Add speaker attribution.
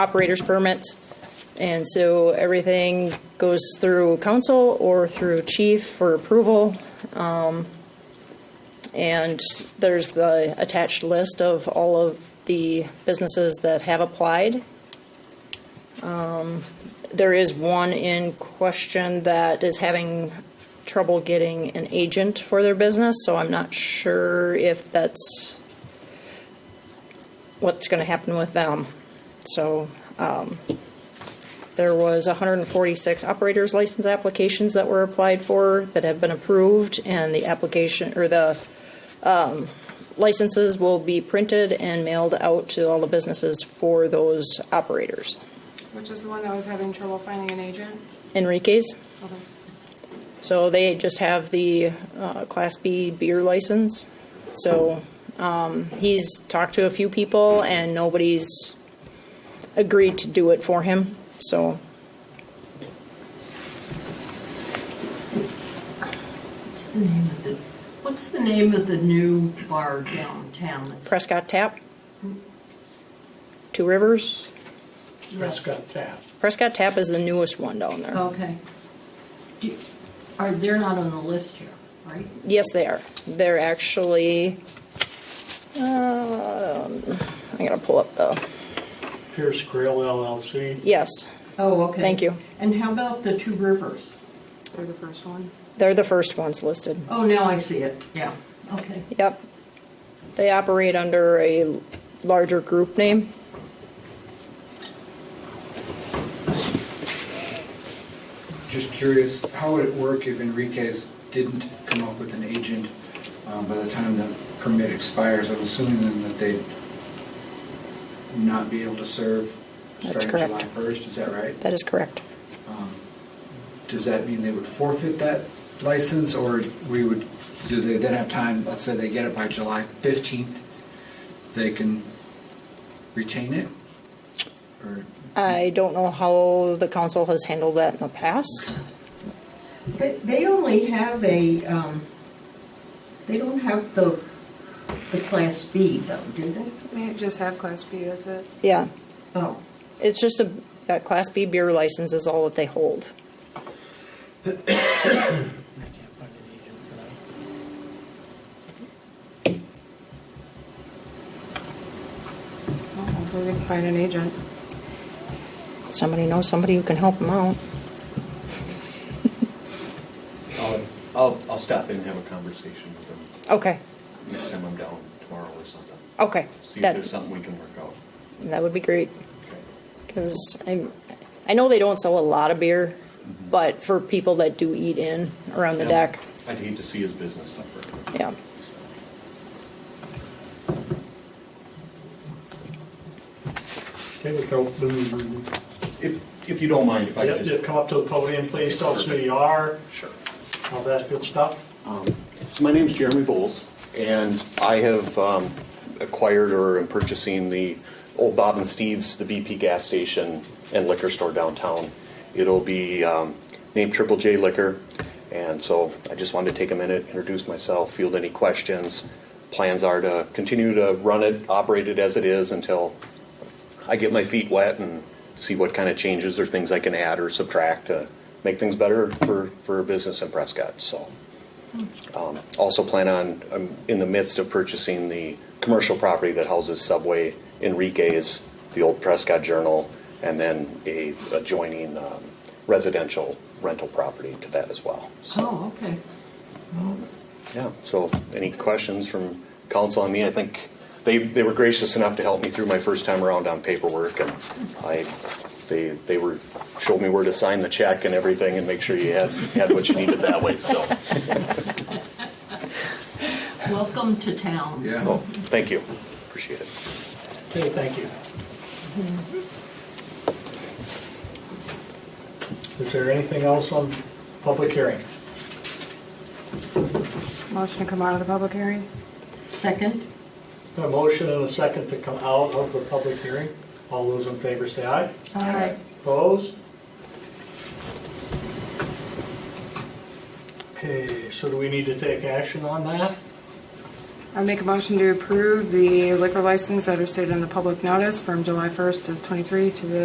Speaker 1: operator's permits. And so everything goes through council or through chief for approval. Um, And there's the attached list of all of the businesses that have applied. Um, There is one in question that is having trouble getting an agent for their business, so I'm not sure if that's what's going to happen with them. So um, there was 146 operators license applications that were applied for that have been approved, and the application, or the um, licenses will be printed and mailed out to all the businesses for those operators.
Speaker 2: Which is the one that was having trouble finding an agent?
Speaker 1: Enrique's,
Speaker 2: Okay.
Speaker 1: so they just have the uh, Class B beer license. So um, he's talked to a few people, and nobody's agreed to do it for him, so
Speaker 3: What's the name of the, what's the name of the new bar downtown?
Speaker 1: Prescott Tap, Two Rivers.
Speaker 4: Prescott Tap.
Speaker 1: Prescott Tap is the newest one down there.
Speaker 3: Okay. Do- Are, they're not on the list here, right?
Speaker 1: Yes, they are. They're actually, um, I gotta pull up the,
Speaker 4: Pierce Grill LLC.
Speaker 1: yes,
Speaker 3: Oh, okay.
Speaker 1: Thank you.
Speaker 3: And how about the Two Rivers?
Speaker 2: They're the first one.
Speaker 1: they're the first ones listed.
Speaker 3: Oh, now I see it, yeah, okay.
Speaker 1: Yep. They operate under a larger group name.
Speaker 5: Just curious, how would it work if Enriquez didn't come up with an agent um, by the time the permit expires? I'm assuming then that they'd not be able to serve
Speaker 1: That's
Speaker 5: starting July
Speaker 1: correct.
Speaker 5: 1st, is that right?
Speaker 1: That is correct.
Speaker 5: Um, Does that mean they would forfeit that license, or we would, do they then have time, let's say they get it by July 15th, they can retain it? Or,
Speaker 1: I don't know how the council has handled that in the past.
Speaker 3: They, they only have a, um, they don't have the, the Class B though, do they?
Speaker 2: They just have Class B, that's it.
Speaker 1: Yeah,
Speaker 3: Oh,
Speaker 1: it's just a, that Class B beer license is all that they hold.
Speaker 4: I can't find an agent for that.
Speaker 2: Well, Hopefully they can find an agent.
Speaker 1: Somebody knows somebody who can help them out.
Speaker 6: I'll, I'll, I'll stop in and have a conversation with them
Speaker 1: Okay,
Speaker 6: next time I'm down tomorrow or something.
Speaker 1: okay.
Speaker 6: See if
Speaker 1: That-
Speaker 6: there's something we can work out.
Speaker 1: That would be great,
Speaker 6: Okay.
Speaker 1: because I, I know they don't sell a lot of beer, but for people that do eat in around the
Speaker 6: Yeah.
Speaker 1: deck,
Speaker 6: I'd hate to see his business suffer.
Speaker 1: yeah.
Speaker 4: Okay, we go, mm,
Speaker 6: If, if you don't mind, if I
Speaker 4: yeah,
Speaker 6: could
Speaker 4: yeah,
Speaker 6: just.
Speaker 4: come up to the podium, please, tell us who you are,
Speaker 6: Sure.
Speaker 4: all that good stuff.
Speaker 6: So my name's Jeremy Bowles, and I have um, acquired or am purchasing the old Bob and Steve's, the BP gas station and liquor store downtown. It'll be um, named Triple J Liquor, and so I just wanted to take a minute, introduce myself, field any questions. Plans are to continue to run it, operate it as it is until I get my feet wet and see what kind of changes or things I can add or subtract to make things better for, for business in Prescott, so. Um, Also plan on, I'm in the midst of purchasing the commercial property that houses Subway, Enrique's, the old Prescott Journal, and then a adjoining um, residential rental property to that as well. So,
Speaker 3: oh, okay.
Speaker 6: yeah, so any questions from council on me? I think they, they were gracious enough to help me through my first time around on paperwork, and I, they, they were, showed me where to sign the check and everything, and make sure you had, had what you needed that way, so.
Speaker 3: Welcome to town.
Speaker 6: well,
Speaker 5: yeah,
Speaker 6: Thank you, appreciate it.
Speaker 4: Okay, thank you. Mm-hmm. Is there anything else on public hearing?
Speaker 2: Motion to come out of the public hearing?
Speaker 3: Second?
Speaker 4: A motion and a second to come out of the public hearing. All those in favor say aye.
Speaker 3: Aye.
Speaker 4: Opposed? Okay, so do we need to take action on that?
Speaker 2: I make a motion to approve the liquor license that are stated in the public notice from July 1st of '23 to the